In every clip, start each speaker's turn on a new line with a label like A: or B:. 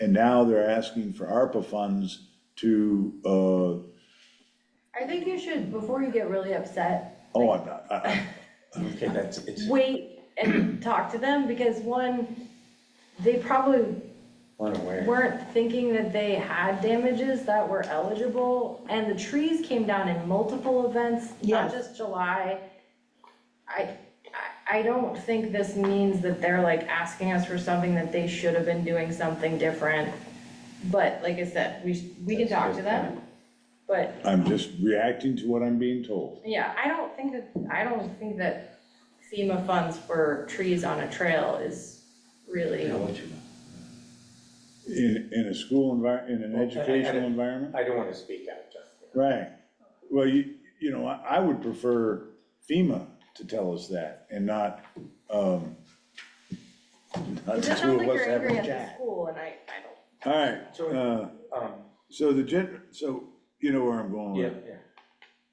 A: And now they're asking for ARPA funds to, uh, oh,
B: I think you should, before you get really upset,
A: I'm not, I, I,
C: Okay, that's, it's,
B: wait and talk to them, because one, they probably
C: unaware.
B: weren't thinking that they had damages that were eligible, and the trees came down in multiple events,
D: Yes.
B: not just July. I, I, I don't think this means that they're like asking us for something that they should have been doing something different. But like I said, we, sh- we can
C: That's a
B: talk
C: good
B: to them, but
A: I'm just reacting to what I'm being told.
B: Yeah, I don't think that, I don't think that FEMA funds for trees on a trail is really,
C: I'll let you know.
A: In, in a school envir, in an
C: Well, I- I-
A: educational environment?
C: I don't want to speak out, John.
A: Right. Well, you, you know, I, I would prefer FEMA to tell us that and not, um, not
B: it
A: the
B: just
A: two
B: sounds
A: of
B: like
A: us
B: you're
A: having
B: angry
A: a
B: at the
A: chat.
B: school and I, I don't.
A: All right,
C: So-
A: uh,
C: Um,
A: so the gen, so you know where I'm going with
C: yeah,
A: it.
C: yeah.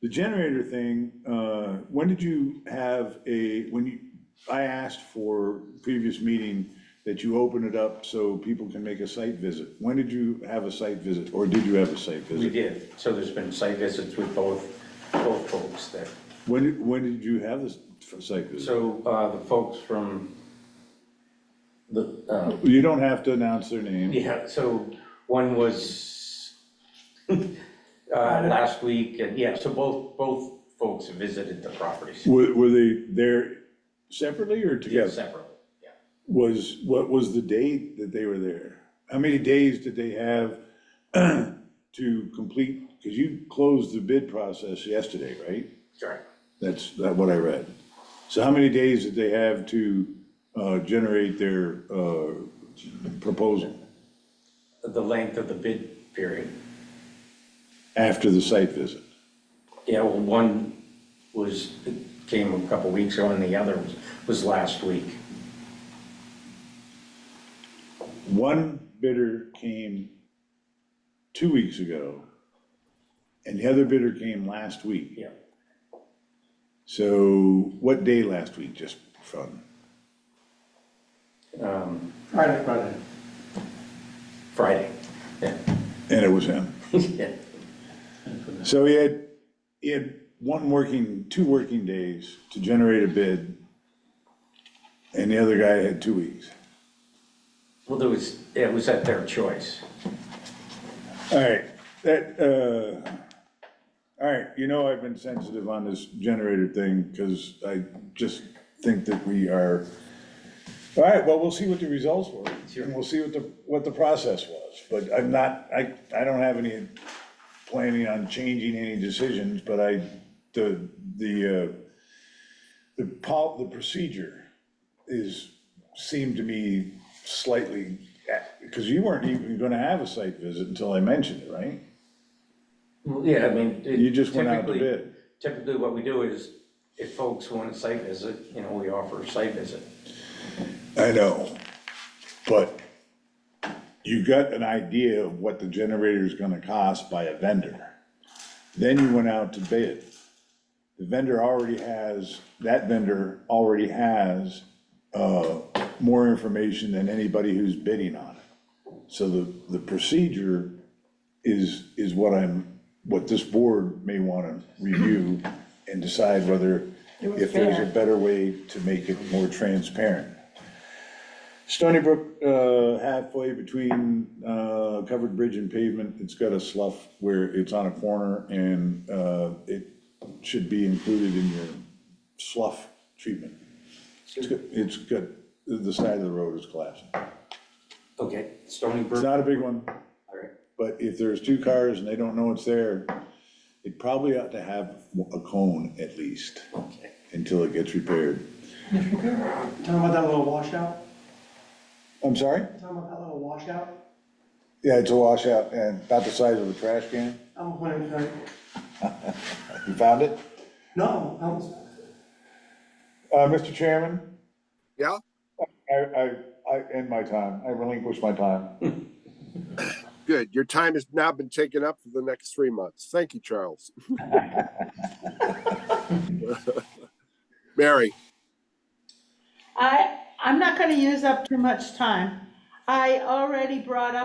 A: The generator thing, uh, when did you have a, when you, I asked for previous meeting that you open it up so people can make a site visit. When did you have a site visit, or did you have a site visit?
C: We did, so there's been site visits with both, both folks there.
A: When, when did you have this f- site visit?
C: So, uh, the folks from the, uh,
A: You don't have to announce their name.
C: yeah, so one was, uh, last week, and yeah, so both, both folks visited the properties.
A: Were, were they there separately or together?
C: Separately, yeah.
A: Was, what was the date that they were there? How many days did they have to complete, because you closed the bid process yesterday, right?
C: Sorry.
A: That's that what I read. So how many days did they have to uh, generate their uh, proposal
C: The length of the bid period.
A: after the site visit?
C: Yeah, well, one was, came a couple weeks ago, and the other was, was last week.
A: One bidder came two weeks ago, and the other bidder came last week.
C: Yeah.
A: So what day last week, just from?
C: Um,
E: Friday, Friday.
C: Friday, yeah,
A: And it was him.
C: yeah.
A: So he had, he had one working, two working days to generate a bid, and the other guy had two weeks.
C: Well, there was, it was at their choice.
A: All right, that, uh, all right, you know I've been sensitive on this generator thing, because I just think that we are, all right, well, we'll see what the results were, and we'll see what the, what the process was, but I'm not, I, I don't have any planning on changing any decisions, but I, the, the, uh, the pol, the procedure is, seemed to me slightly, because you weren't even gonna have a site visit until I mentioned it, right?
C: Well, Yeah, I mean. it-
A: You just went out to
C: typically-
A: bid.
C: Typically, what we do is, if folks want a site visit, you know, we offer a site visit.
A: I know, but you got an idea of what the generator's gonna cost by a vendor. Then you went out to bid. The vendor already has, that vendor already has, uh, more information than anybody who's bidding on it. So the, the procedure is, is what I'm, what this board may wanna review and decide whether, if there's a better way to make it more transparent. Stony Brook, uh, halfway between, uh, covered bridge and pavement, it's got a slough where it's on a corner and, uh, it should be included in your slough treatment. It's got, it's got, the side of the road is collapsing.
C: Okay, Stony
A: It's
C: Brook,
A: not a big one,
C: all right.
A: but if there's two cars and they don't know it's there, it probably ought to have a cone at least
C: Okay.
A: until it gets repaired.
E: If you could, tell them about that little washout,
A: I'm sorry?
E: tell them about that little washout,
A: Yeah, it's a washout and about the size of a trash can.
E: I'm pointing to it.
A: You found it?
E: No, I was,
A: Uh, Mr. Chairman?
F: Yeah?
A: I, I, I end my time. I relinquish my time.
F: Good. Your time has now been taken up for the next three months. Thank you, Charles. Mary,
G: I, I'm not gonna use up too much time. I already brought up.